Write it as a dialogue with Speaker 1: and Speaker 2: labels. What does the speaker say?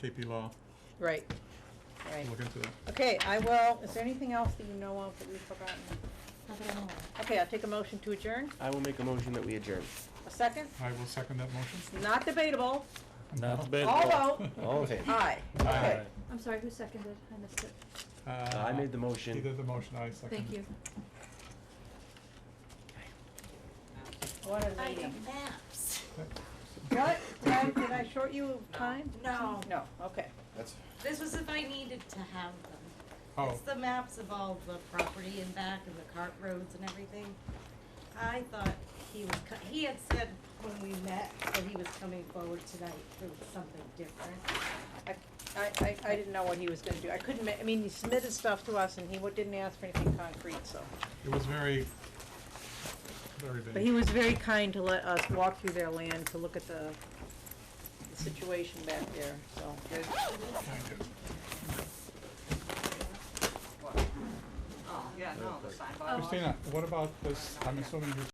Speaker 1: KP Law,
Speaker 2: Right, right.
Speaker 1: look into that.
Speaker 2: Okay, I will, is there anything else that you know of that we've forgotten?
Speaker 3: Not that I know of.
Speaker 2: Okay, I'll take a motion to adjourn.
Speaker 4: I will make a motion that we adjourn.
Speaker 2: A second?
Speaker 1: I will second that motion.
Speaker 2: Not debatable.
Speaker 5: Not bad.
Speaker 2: All vote.
Speaker 4: All in favor?
Speaker 2: Aye. Okay.
Speaker 5: Aye.
Speaker 3: I'm sorry, who seconded? I missed it.
Speaker 1: Uh,
Speaker 4: I made the motion.
Speaker 1: He did the motion, I seconded.
Speaker 3: Thank you.
Speaker 2: What a meeting. What? Did I- did I short you of time?
Speaker 6: No,
Speaker 2: No, okay.
Speaker 4: That's.
Speaker 6: this was if I needed to have them.
Speaker 1: Oh,
Speaker 6: It's the maps of all the property and back and the cart roads and everything. I thought he was, co- he had said when we met that he was coming forward tonight for something different.
Speaker 2: I, I, I- I didn't know what he was gonna do. I couldn't, ma- I mean, he submitted stuff to us and he wa- didn't ask for anything concrete, so.
Speaker 1: it was very, very big.
Speaker 2: But he was very kind to let us walk through their land to look at the the situation back there, so, good.
Speaker 7: Oh, yeah, no, the sign bylaw.
Speaker 1: Christina, what about this, I'm assuming you